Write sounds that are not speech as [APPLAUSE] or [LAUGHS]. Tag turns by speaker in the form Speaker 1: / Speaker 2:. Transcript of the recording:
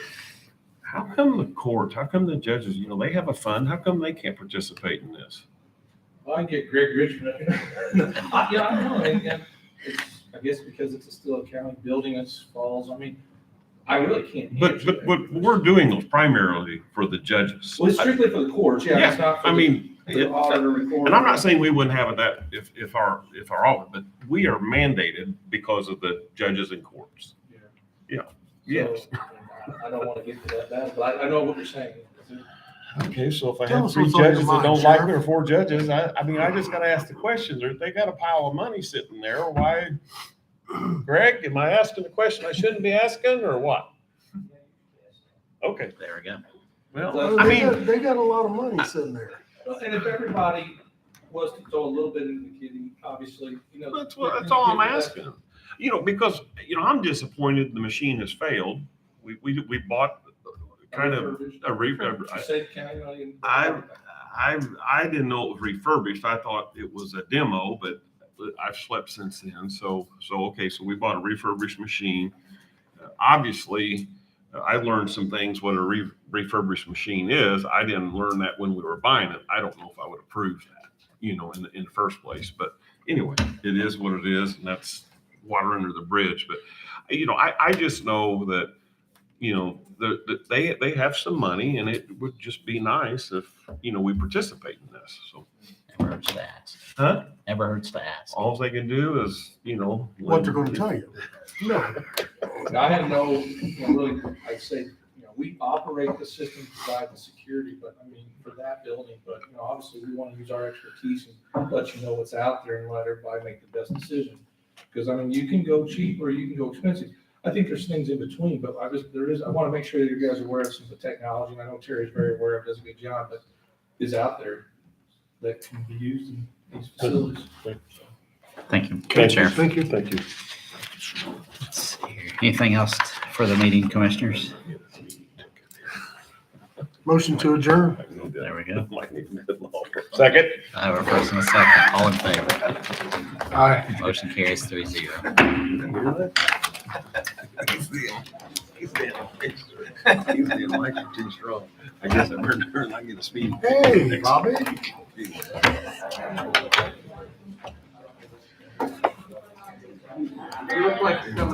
Speaker 1: How come the courts, how come the judges, you know, they have a fund, how come they can't participate in this?
Speaker 2: Well, I get Greg Richmond. [LAUGHS] I- Yeah, I know, and, and it's, I guess because it's still a county building, it falls, I mean, I really can't.
Speaker 1: But,
Speaker 2: answer
Speaker 1: but
Speaker 2: that.
Speaker 1: what we're doing is primarily for the judges.
Speaker 2: Well, it's strictly for the courts, yeah, it's not
Speaker 1: I
Speaker 2: for the
Speaker 1: mean,
Speaker 2: for the
Speaker 1: it-
Speaker 2: auditor recorder.
Speaker 1: And I'm not saying we wouldn't have that if, if our, if our audit, but we are mandated because of the judges and courts.
Speaker 2: Yeah.
Speaker 1: Yeah, yes.
Speaker 2: So, I don't want to get to that battle, but I, I know what you're saying.
Speaker 1: Okay, so if I
Speaker 3: Tell
Speaker 1: have
Speaker 3: us
Speaker 1: three
Speaker 3: what's on your
Speaker 1: judges that
Speaker 3: mind,
Speaker 1: don't like
Speaker 3: Sheriff.
Speaker 1: their four judges, I, I mean, I just gotta ask the question, There- they got a pile of money sitting there, why? Greg, am I asking a question I shouldn't be asking, or what? Okay.
Speaker 4: There we go.
Speaker 1: Well,
Speaker 2: So-
Speaker 1: I
Speaker 3: They
Speaker 1: mean,
Speaker 3: got- They got a lot of money sitting there.
Speaker 2: Well, And if everybody was to throw a little bit into the kitty, obviously, you know.
Speaker 1: That's what, that's all I'm asking. You know, because, you know, I'm disappointed the machine has failed. We, we, we bought kind of a re,
Speaker 2: You
Speaker 1: a-
Speaker 2: said county, not even-
Speaker 1: I, I, I didn't know it was refurbished. I thought it was a demo, but I've slept since then. So, so, okay, so we bought a refurbished machine. Uh, Obviously, uh, I learned some things what a re- refurbished machine is. I didn't learn that when we were buying it. I don't know if I would approve that, you know, in, the- in the first place. But anyway, it is what it is, and that's water under the bridge. But, you know, I, I just know that you know, the, the, they, they have some money and it would just be nice if, you know, we participate in this. So
Speaker 4: Never hurts to ask.
Speaker 1: Huh?
Speaker 4: Never hurts to ask.
Speaker 1: all they can do is, you know.
Speaker 3: What they're gonna tell you. No,
Speaker 2: And I have no, you know, really, I'd say, you know, we operate the system, provide the security, but I mean, for that building, but, you know, obviously, we want to use our expertise and let you know what's out there and let everybody make the best decision. Because, I mean, you can go cheap or you can go expensive. I think there's things in between, but I just, there is, I want to make sure that you guys are aware of some of the technology, and I know Terry's very aware of, does a good job, but is out there that can be used in these facilities.
Speaker 4: Thank you. Good Sheriff.
Speaker 1: Thank you, thank you.
Speaker 4: Let's see here. Anything else for the meeting, commissioners?
Speaker 3: motion to adjourn.
Speaker 4: There
Speaker 1: [LAUGHS]
Speaker 4: we go.
Speaker 1: Second.
Speaker 4: I have a first and a second. All in favor.
Speaker 3: Aye.
Speaker 4: Motion carries three zero.
Speaker 1: He's being, he's being, he's being like too strong. I guess I'm heard, I get a speed.
Speaker 3: Hey, Bobby.
Speaker 2: You look like you're coming